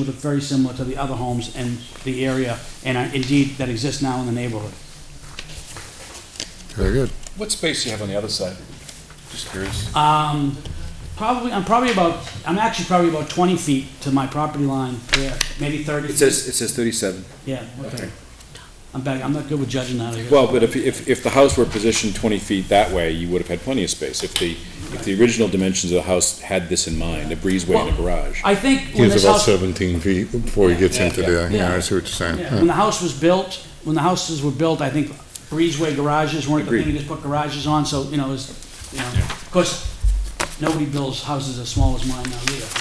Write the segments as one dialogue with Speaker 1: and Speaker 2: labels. Speaker 1: would look very similar to the other homes in the area, and uh, indeed, that exist now in the neighborhood.
Speaker 2: Very good.
Speaker 3: What space do you have on the other side? Just curious.
Speaker 4: Uh,
Speaker 1: Um, probably, I'm probably about, I'm actually probably about twenty feet to my property line there, maybe thirty.
Speaker 3: It
Speaker 1: feet.
Speaker 3: says, it says thirty-seven.
Speaker 1: Yeah, okay.
Speaker 3: Okay.
Speaker 1: I'm back, I'm not good with judging that, I guess.
Speaker 3: Well, but if, if, if the house were positioned twenty feet that way, you would have had plenty of space. If the, if the original dimensions of the house had this in mind, a breezeway and a garage.
Speaker 1: I think when
Speaker 2: He's
Speaker 1: this
Speaker 2: about
Speaker 1: house,
Speaker 2: seventeen feet before he gets
Speaker 3: Yeah,
Speaker 2: into
Speaker 3: yeah.
Speaker 2: the, yeah, I
Speaker 1: Yeah.
Speaker 2: see what you're saying.
Speaker 1: yeah,
Speaker 2: Yeah.
Speaker 1: when the house was built, when the houses were built, I think breezeway garages weren't the thing, you
Speaker 3: Agreed.
Speaker 1: just put garages on, so, you know, it's, you know, of course, nobody builds houses as small as mine now either. you know,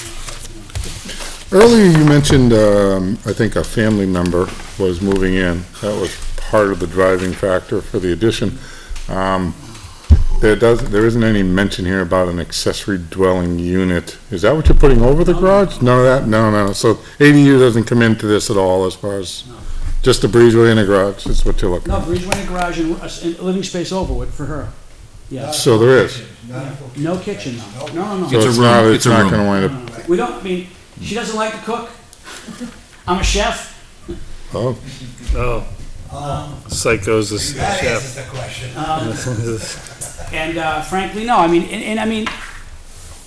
Speaker 1: but, you know.
Speaker 2: Earlier, you mentioned, um, I think a family member was moving in. That was part of the driving factor for the addition. Um, there does, there isn't any mention here about an accessory dwelling unit. Is that what you're putting over the garage? None of that? No, no. So ADU doesn't come into this at all as far as,
Speaker 1: No.
Speaker 2: just a breezeway and a garage is what you're looking
Speaker 1: No,
Speaker 2: at?
Speaker 1: breezeway and garage and, uh, and living space overwood for her. Yeah,
Speaker 2: So there is.
Speaker 1: no kitchen though, no, no,
Speaker 2: So
Speaker 1: no.
Speaker 4: It's a
Speaker 2: it's not,
Speaker 4: room.
Speaker 2: it's
Speaker 4: It's a
Speaker 2: not
Speaker 4: room.
Speaker 2: gonna wind up,
Speaker 1: No, no, no. We don't, I mean, she doesn't like to cook. I'm a chef.
Speaker 2: oh.
Speaker 5: Oh. Psychos is the
Speaker 6: That
Speaker 5: chef.
Speaker 6: answers the question.
Speaker 1: And uh, frankly, no, I mean, and, and I mean,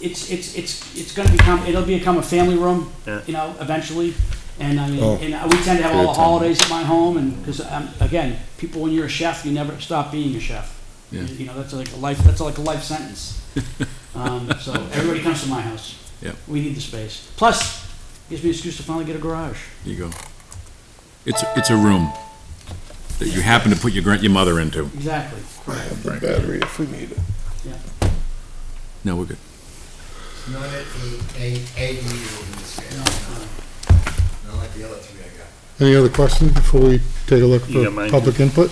Speaker 1: it's, it's, it's, it's gonna become, it'll become a family room,
Speaker 5: Yeah.
Speaker 1: you know, eventually. And I mean,
Speaker 2: Oh.
Speaker 1: and uh, we tend to have all the
Speaker 2: Good time.
Speaker 1: holidays at my home and, cause um again, people, when you're a chef, you never stop being a chef.
Speaker 4: Yeah.
Speaker 1: You know, that's like a life, that's like a life sentence. Um, so everybody comes to my house.
Speaker 4: Yep.
Speaker 1: We need the space. Plus, gives me an excuse to finally get a garage.
Speaker 4: There you go. It's, it's a room that you happen to put your, gran- your mother into.
Speaker 1: Exactly.
Speaker 2: Battery if we need it.
Speaker 4: No, we're good.
Speaker 6: It's Not an A- ADU in this case. Not like the other three I got.
Speaker 2: Any other questions before we take a look
Speaker 5: You
Speaker 2: for
Speaker 5: got mine.
Speaker 2: public input?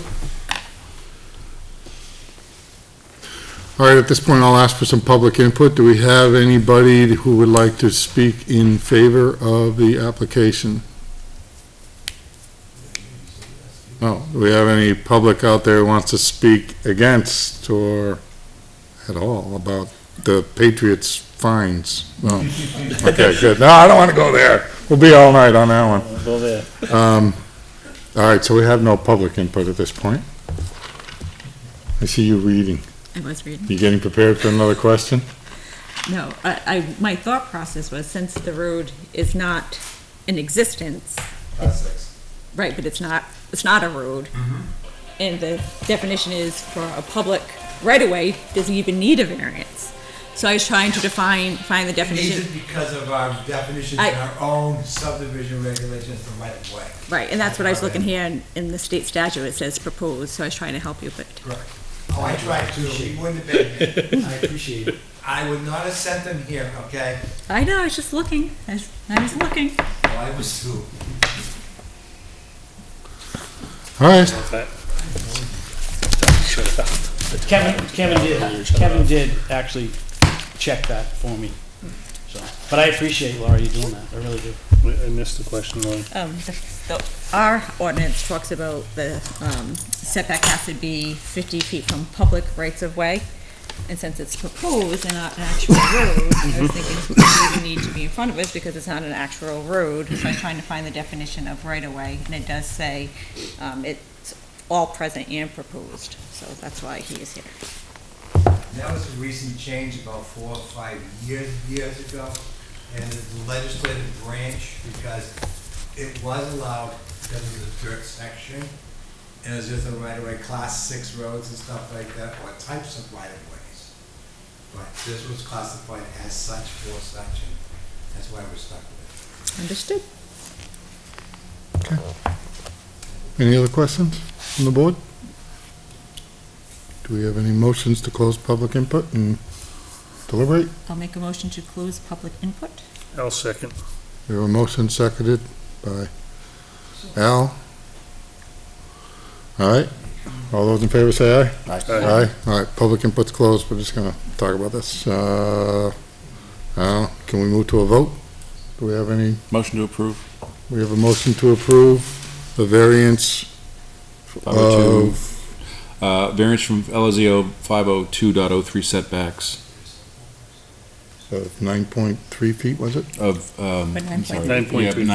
Speaker 2: All right, at this point, I'll ask for some public input. Do we have anybody who would like to speak in favor of the application? No, do we have any public out there who wants to speak against or at all about the Patriots fines? No. Okay, good. No, I don't want to go there. We'll be all night on that one.
Speaker 5: Go there.
Speaker 2: Um, All right, so we have no public input at this point. I see you reading.
Speaker 7: I was reading.
Speaker 2: You getting prepared for another question?
Speaker 7: No, I, I, my thought process was since the road is not in existence,
Speaker 6: Lot six.
Speaker 7: right, but it's not, it's not a road. And the definition is for a public right of way, doesn't even need a variance. So I was trying to define, find the
Speaker 6: It needs it
Speaker 7: definition,
Speaker 6: because of our definitions
Speaker 7: I-
Speaker 6: and our own subdivision regulations for right of way.
Speaker 7: right, and that's what I was looking here in, in the state statute, it says proposed, so I was trying to help you, but
Speaker 6: Oh, I tried to, we wouldn't have been, here.
Speaker 1: I appreciate it.
Speaker 6: I would not have sent them here, okay?
Speaker 7: I know, I was just looking, I was, I was looking.
Speaker 6: Well, I was too.
Speaker 2: All right,
Speaker 1: Kevin, Kevin did, Kevin did actually check that for me. So, but I appreciate Laura you doing that. I really do.
Speaker 5: I missed the question, Lauren.
Speaker 7: Um, the, the, our ordinance talks about the, um, setback has to be fifty feet from public rights of way. And since it's proposed and not an actual road, I was thinking it doesn't even need to be in front of us because it's not an actual road. So I'm trying to find the definition of right of way, and it does say, um, it's all present and proposed, so that's why he is here.
Speaker 6: That was a recent change about four or five years, years ago, and the legislative branch, because it was allowed because of the dirt section, and it's just a right-of-way, class six roads and stuff like that, or types of right-of-ways. But this was classified as such for such, and that's why we're stuck with
Speaker 7: Understood.
Speaker 2: any other questions from the board? Do we have any motions to close public input and deliberate?
Speaker 7: I'll make a motion to close public input.
Speaker 5: I'll second.
Speaker 2: We have a motion seconded by Al. All right, all those in favor say aye. Aye, all right, public input's closed, we're just gonna talk about this. Uh, uh, can we move to a vote? Do we have any,
Speaker 4: Motion to approve.
Speaker 2: we have a motion to approve the variance of,
Speaker 4: 502. Uh, variance from LZO 502.03 setbacks
Speaker 2: of nine point three feet, was it?
Speaker 4: of, um,
Speaker 7: But
Speaker 4: I'm sorry.
Speaker 5: 9.3.
Speaker 4: Yeah,